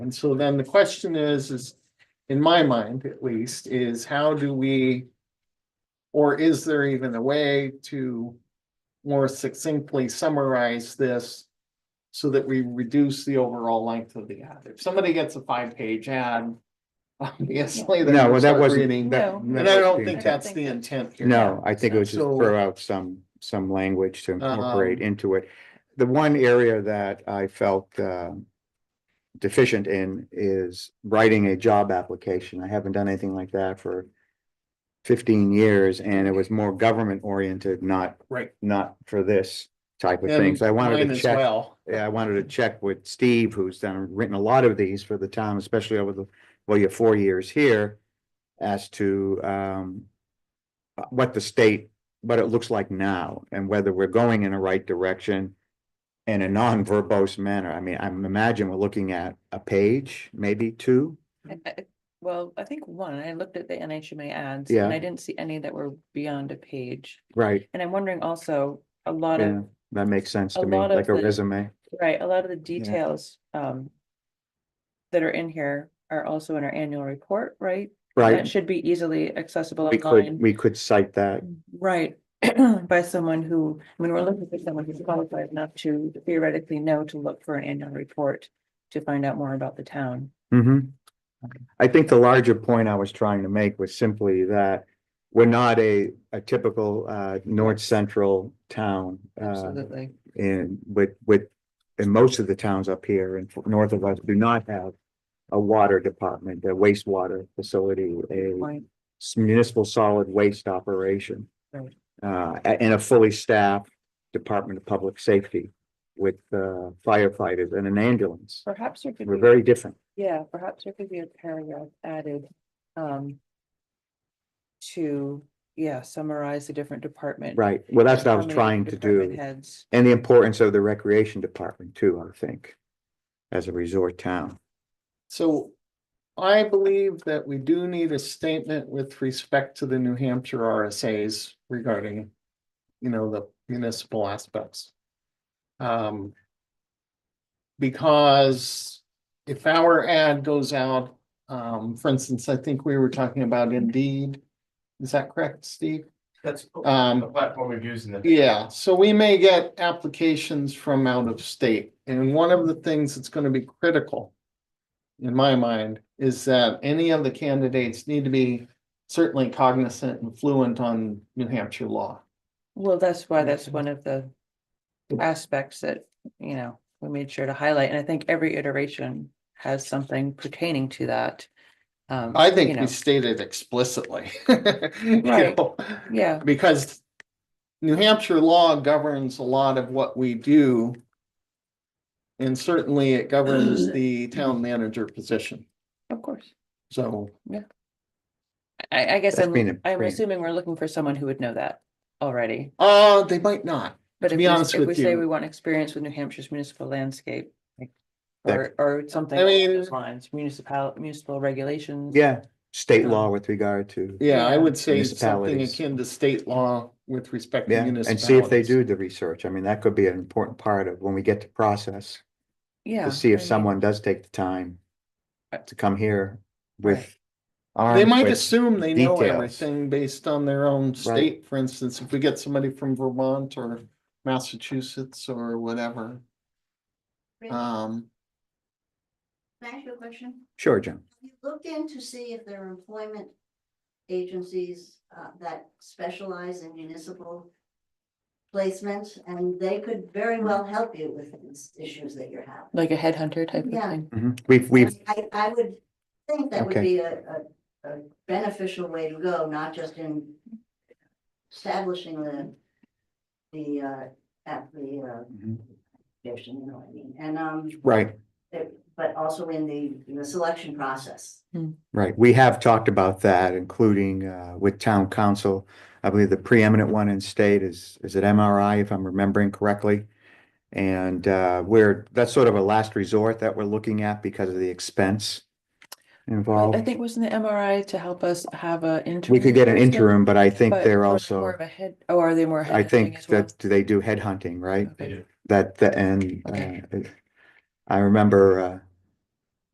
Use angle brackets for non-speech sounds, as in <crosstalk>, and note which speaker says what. Speaker 1: And so then the question is, is, in my mind at least, is how do we? Or is there even a way to more succinctly summarize this? So that we reduce the overall length of the ad. If somebody gets a five-page ad, <laughs> obviously. they're
Speaker 2: No,
Speaker 1: gonna
Speaker 2: well,
Speaker 1: start
Speaker 2: that wasn't.
Speaker 1: reading.
Speaker 2: that-
Speaker 1: And
Speaker 2: that
Speaker 1: I don't
Speaker 2: wasn't-
Speaker 1: think
Speaker 3: I don't
Speaker 1: that's
Speaker 3: think
Speaker 1: the
Speaker 3: that's-
Speaker 1: intent here.
Speaker 2: No, I think it was just
Speaker 1: So-
Speaker 2: throw out some, some language to incorporate
Speaker 1: Um,
Speaker 2: into it. The one area that I felt um, deficient in is writing a job application. I haven't done anything like that for fifteen years and it was more government oriented, not.
Speaker 1: Right.
Speaker 2: Not for this type of
Speaker 1: And
Speaker 2: thing. So I wanted
Speaker 1: mine
Speaker 2: to
Speaker 1: as
Speaker 2: check.
Speaker 1: well.
Speaker 2: Yeah, I wanted to check with Steve, who's done, written a lot of these for the town, especially over the, well, your four years here. As to um. uh, What the state, what it looks like now and whether we're going in the right direction. In a non-verbose manner. I mean, I imagine we're looking at a page, maybe two.
Speaker 3: I- I- Well, I think one, I looked at the NHMA ads
Speaker 2: Yeah.
Speaker 3: and I didn't see any that were beyond a page.
Speaker 2: Right.
Speaker 3: And I'm wondering also, a lot
Speaker 2: Yeah,
Speaker 3: of,
Speaker 2: that makes sense
Speaker 3: A
Speaker 2: to me,
Speaker 3: lot of
Speaker 2: like a
Speaker 3: the-
Speaker 2: resume.
Speaker 3: right, a lot of the details, um. That are in here are also in our annual report, right? That
Speaker 2: Right,
Speaker 3: should be easily accessible
Speaker 2: we could,
Speaker 3: online,
Speaker 2: we could cite that.
Speaker 3: right? <clears throat> By someone who, I mean, we're looking for someone who's qualified enough to theoretically know to look for an annual report. To find out more about the town.
Speaker 2: hmm
Speaker 3: Mm-hmm.
Speaker 2: I think the larger point I was trying to make was simply that we're not a, a typical, uh, north central town. Uh,
Speaker 3: Absolutely.
Speaker 2: and with, with, and most of the towns up here and north of us do not have a water department, a wastewater facility, a
Speaker 3: Right.
Speaker 2: s- municipal solid waste operation.
Speaker 3: Right.
Speaker 2: Uh, a- and a fully staffed Department of Public Safety with uh, firefighters and an ambulance.
Speaker 3: Perhaps there could
Speaker 2: We're
Speaker 3: be.
Speaker 2: very different.
Speaker 3: Yeah, perhaps there could be a paragraph added, um. To, yeah, summarize the different department.
Speaker 2: Right, well, that's what I
Speaker 3: how
Speaker 2: was
Speaker 3: many
Speaker 2: trying to
Speaker 3: department
Speaker 2: do,
Speaker 3: Heads,
Speaker 2: and the importance of the recreation department too, I think. As a resort town,
Speaker 1: So I believe that we do need a statement with respect to the New Hampshire RSA's regarding, you know, the municipal aspects. Um, because if our ad goes out, um, for instance, I think we were talking about Indeed. Is that correct, Steve?
Speaker 4: That's
Speaker 1: Um,
Speaker 4: the platform we've used in the.
Speaker 1: Yeah, so we may get applications from out of state, and one of the things that's gonna be critical. In my mind, is that any of the candidates need to be certainly cognizant and fluent on New Hampshire law.
Speaker 3: well, that's why that's one of the. Aspects that, you know, we made sure to highlight, and I think every iteration has something pertaining to that. Um,
Speaker 1: I
Speaker 3: you
Speaker 1: think
Speaker 3: know,
Speaker 1: we stated explicitly. <laughs> you
Speaker 3: Right.
Speaker 1: know,
Speaker 3: Yeah,
Speaker 1: Because New Hampshire law governs a lot of what we do. And certainly it
Speaker 3: <clears throat>
Speaker 1: governs the town manager position,
Speaker 3: of course,
Speaker 1: so.
Speaker 3: I, I guess
Speaker 2: That's
Speaker 3: I'm,
Speaker 2: been a
Speaker 3: I'm
Speaker 2: pain.
Speaker 3: assuming we're looking for someone who would know that already.
Speaker 1: Uh, they might not.
Speaker 3: But
Speaker 1: To
Speaker 3: if
Speaker 1: be
Speaker 3: we,
Speaker 1: honest
Speaker 3: s- if
Speaker 1: with
Speaker 3: we say
Speaker 1: you-
Speaker 3: we want experience with New Hampshire's municipal landscape. like,
Speaker 2: That-
Speaker 3: Or, or something
Speaker 1: I
Speaker 3: along
Speaker 1: mean-
Speaker 3: those lines, municipal, municipal regulations.
Speaker 2: yeah, state law with regard to,
Speaker 1: Yeah, I
Speaker 3: Yeah.
Speaker 1: would say something
Speaker 2: Municipalities.
Speaker 1: akin to state law with respect to
Speaker 2: yeah, and see if they
Speaker 1: municipalities.
Speaker 2: do the research, I mean, that could be an important part of when we get to process.
Speaker 3: Yeah.
Speaker 2: To see
Speaker 3: I
Speaker 2: if
Speaker 3: mean,
Speaker 2: someone does take the time to come here with.
Speaker 1: They
Speaker 2: armed
Speaker 1: might
Speaker 2: with-
Speaker 1: assume they know
Speaker 2: details.
Speaker 1: everything based on their own state, for instance, if we get somebody from Vermont or Massachusetts or whatever.
Speaker 5: Rick,
Speaker 2: Uh,
Speaker 5: Can
Speaker 1: Um,
Speaker 5: I ask you a question?
Speaker 2: Sure, John,
Speaker 5: Have you looked in to see if there are employment agencies uh, that specialize in municipal placement? And they could very well help you with these issues that you're having.
Speaker 3: Like a headhunter type of
Speaker 5: Yeah.
Speaker 3: thing.
Speaker 2: Mhm. we've, we've,
Speaker 5: I, I would think that would
Speaker 2: Okay.
Speaker 5: be a, a, a beneficial way to go, not just in establishing the, the, uh, at the,
Speaker 3: Mm-hmm.
Speaker 2: Mhm.
Speaker 5: uh, vision, you know what I mean? And, um,
Speaker 2: right,
Speaker 5: it- but also in the, in the selection process.
Speaker 2: right, we have talked about that, including uh with town council. I believe the preeminent one in state is, is it MRI, if I'm remembering correctly? And uh we're, that's sort of a last resort that we're looking at because of the expense
Speaker 3: Well,
Speaker 2: involved.
Speaker 3: I think wasn't the MRI to help us have a interim?
Speaker 2: We could get an
Speaker 3: system,
Speaker 2: interim, but I think
Speaker 3: but
Speaker 2: they're
Speaker 3: more-
Speaker 2: also,
Speaker 3: More of a head, oh, are they more?
Speaker 2: I
Speaker 3: headhunting
Speaker 2: think
Speaker 3: as well?
Speaker 2: that they do headhunting, right?
Speaker 3: Okay.
Speaker 2: That, the- and,
Speaker 3: Okay.
Speaker 2: uh, I remember, uh,